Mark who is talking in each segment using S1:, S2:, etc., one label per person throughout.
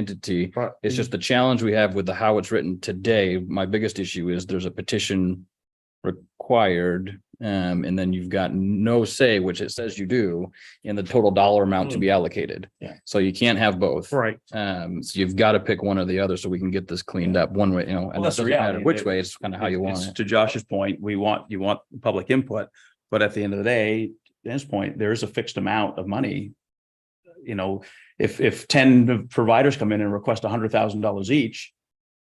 S1: entity.
S2: But
S1: It's just the challenge we have with the how it's written today. My biggest issue is there's a petition required. Um, and then you've got no say, which it says you do, in the total dollar amount to be allocated.
S2: Yeah.
S1: So you can't have both.
S2: Right,
S1: Um, so you've got to pick one or the other so we can get this cleaned up one way, you know,
S3: Well,
S1: and that
S3: that's the
S1: doesn't matter
S3: reality.
S1: which way, it's kind of how you want
S3: It's
S1: it.
S3: To Josh's point, we want, you want public input, but at the end of the day, to his point, there is a fixed amount of money. You know, if, if ten providers come in and request hundred thousand dollars each,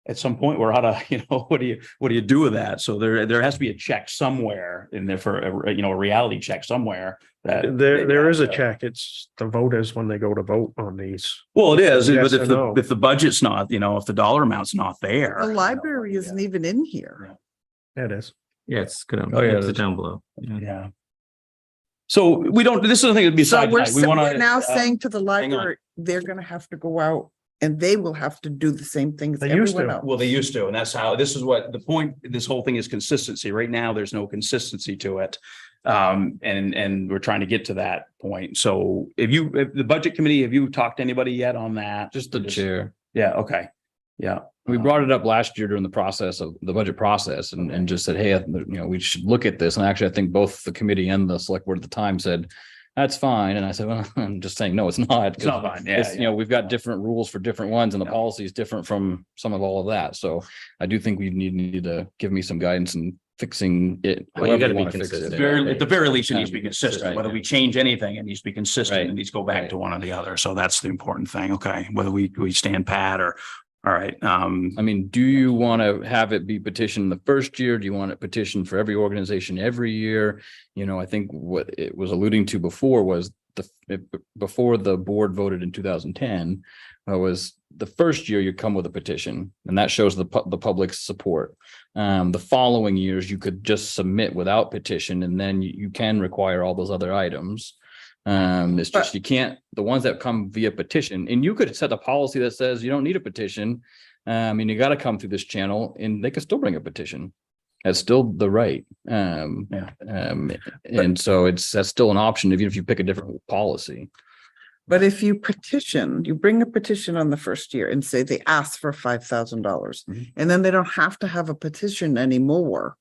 S3: at some point, we're out of, you know, what do you, what do you do with that? So there, there has to be a check somewhere in there for, a- you know, a reality check somewhere that.
S2: there, there is a check. It's the voters when they go to vote on these.
S3: Well, it is,
S2: Yes
S3: but
S2: or
S3: if the,
S2: no?
S3: if the budget's not, you know, if the dollar amount's not there.
S4: The library isn't even in here.
S2: It is.
S5: Yeah, it's good.
S3: Oh, yeah,
S5: It's
S3: that's-
S5: down below. Yeah.
S3: Yeah. So we don't, this is the thing that
S4: So
S3: besides.
S4: we're,
S3: we uh,
S4: sa-
S3: want
S4: we're
S3: to
S1: uh,
S4: now saying to the
S3: on.
S4: library, they're gonna have to go out and they will have to do the same thing as
S2: They used
S4: everyone
S2: to.
S4: else.
S3: Well, they used to, and that's how, this is what the point, this whole thing is consistency. Right now, there's no consistency to it. Um, and, and we're trying to get to that point. So if you, if the budget committee, have you talked to anybody yet on that?
S1: Just the chair.
S3: Yeah, okay. Yeah,
S1: We brought it up last year during the process of the budget process and, and just said, hey, uh, you know, we should look at this. And actually, I think both the committee and the select board at the time said, that's fine. And I said, well, I'm just saying, no, it's not.
S3: it's not mine. Yeah,
S1: It's, you
S3: yeah.
S1: know, we've got different rules for different ones and the
S3: Yeah.
S1: policy is different from some of all of that. So I do think we need, need to give me some guidance in fixing it.
S5: Well, you
S1: however
S5: gotta be
S1: wanna fix it.
S3: At the
S5: consistent.
S3: very, at the very least, it
S1: Gotta
S3: needs to be consistent.
S1: right,
S3: Whether
S1: yeah.
S3: we change anything, it needs to be
S1: Right,
S3: consistent. It needs to go
S1: right.
S3: back to one or the other. So that's the important thing. Okay, whether we, we stand pat or, all right, um,
S1: I mean, do you want to have it be petitioned the first year? Do you want it petitioned for every organization every year? You know, I think what it was alluding to before was the, if- before the board voted in two thousand ten. uh, was the first year you come with a petition and that shows the pu- the public's support. Um, the following years, you could just submit without petition and then you- you can require all those other items. Um, it's just you can't, the ones that come via petition, and you could set a policy that says you don't need a petition. Um, and you gotta come through this channel and they can still bring a petition. That's still the right. Um,
S3: Yeah.
S1: um, and so it's, that's still an option, even if you pick a different policy.
S4: But if you petition, you bring a petition on the first year and say they ask for five thousand dollars.
S3: Mhm.
S1: Mm-hmm.
S4: And then they don't have to have a petition anymore.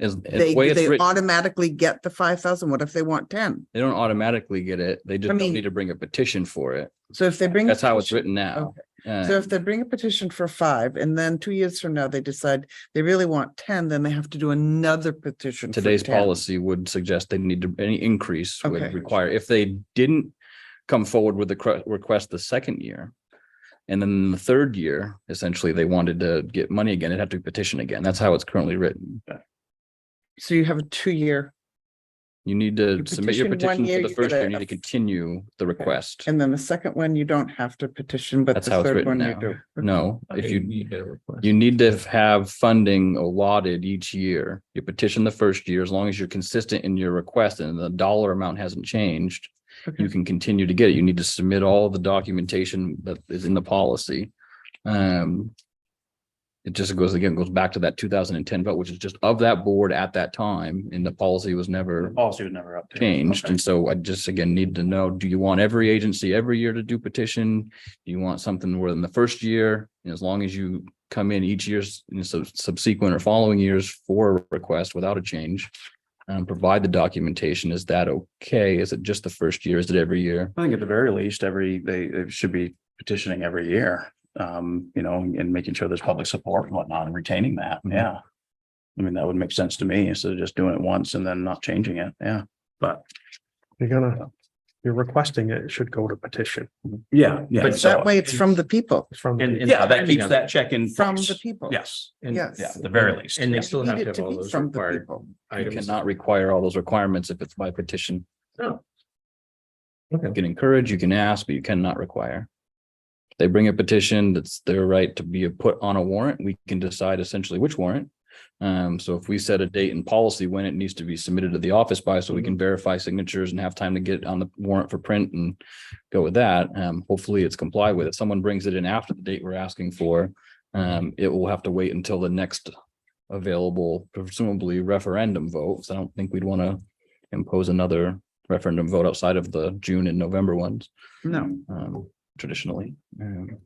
S1: As,
S4: They,
S1: the way it's
S4: they
S1: written,
S4: automatically get the five thousand. What if they want ten?
S1: they don't automatically get it. They just
S4: I
S1: don't
S4: mean-
S1: need to bring a petition for it.
S4: So if they bring. a
S1: That's how it's
S4: petition-
S1: written now.
S4: So
S1: Uh,
S4: if they bring a petition for five and then two years from now, they decide they really want ten, then they have to do another petition. for
S1: today's
S4: 10.
S1: policy would suggest they need to, any increase would
S4: Okay.
S1: require, if they didn't come forward with the cre- request the second year. And then the third year, essentially, they wanted to get money again, it'd have to petition again. That's how it's currently written.
S4: So you have a two-year
S1: You need to
S4: You
S1: submit your
S4: petition one
S1: petition
S4: year,
S1: for the
S4: you
S1: first
S4: get
S1: year,
S4: a-
S1: you need to continue the request.
S4: and then the second one, you don't have to petition, but
S1: That's
S4: the
S1: how it's
S4: third
S1: written
S4: one you
S1: now.
S4: do.
S1: No, if you,
S5: need a request.
S1: you need to have funding allotted each year. You petition the first year, as long as you're consistent in your request and the dollar amount hasn't changed,
S4: Okay.
S1: you can continue to get it. You need to submit all the documentation that is in the policy. Um, it just goes again, goes back to that two thousand and ten vote, which is just of that board at that time, and the policy was never
S3: policy was never updated.
S1: changed.
S3: Okay.
S1: And so I just again need to know, do you want every agency every year to do petition? Do you want something where in the first year, and as long as you come in each year's you know, sub- subsequent or following years for a request without a change? Um, provide the documentation. Is that okay? Is it just the first year? Is it every year?
S3: I think at the very least, every, they, they should be petitioning every year, um, you know, and making sure there's public support and whatnot and retaining that,
S1: Mhm.
S3: yeah. I mean, that would make sense to me instead of just doing it once and then not changing it, yeah, but.
S2: You're gonna, you're requesting it, it should go to petition.
S3: Yeah, yeah.
S4: But that way it's from the people,
S2: It's from,
S5: And-
S2: the-
S5: and
S3: Yeah, that
S5: timing
S3: keeps
S5: of
S3: that check in.
S4: from
S3: place.
S4: the people.
S3: Yes,
S5: and-
S4: yes.
S3: yeah, at the very least.
S5: And they
S3: yeah.
S5: still
S4: You
S5: have to
S4: need it
S5: have
S4: to
S5: all
S4: be
S5: those
S4: from the
S5: required
S4: people.
S1: You
S5: items.
S1: cannot require all those requirements if it's by petition.
S5: No.
S1: You can encourage, you can ask, but you cannot require. They bring a petition, that's their right to be put on a warrant. We can decide essentially which warrant. Um, so if we set a date and policy when it needs to be submitted to the office by, so
S5: Mhm.
S1: we can verify signatures and have time to get on the warrant for print and go with that. Um, hopefully it's complied with. If someone brings it in after the date we're asking for, um, it will have to wait until the next available presumably referendum votes. I don't think we'd want to impose another referendum vote outside of the June and November ones
S4: No.
S1: um, traditionally. Um,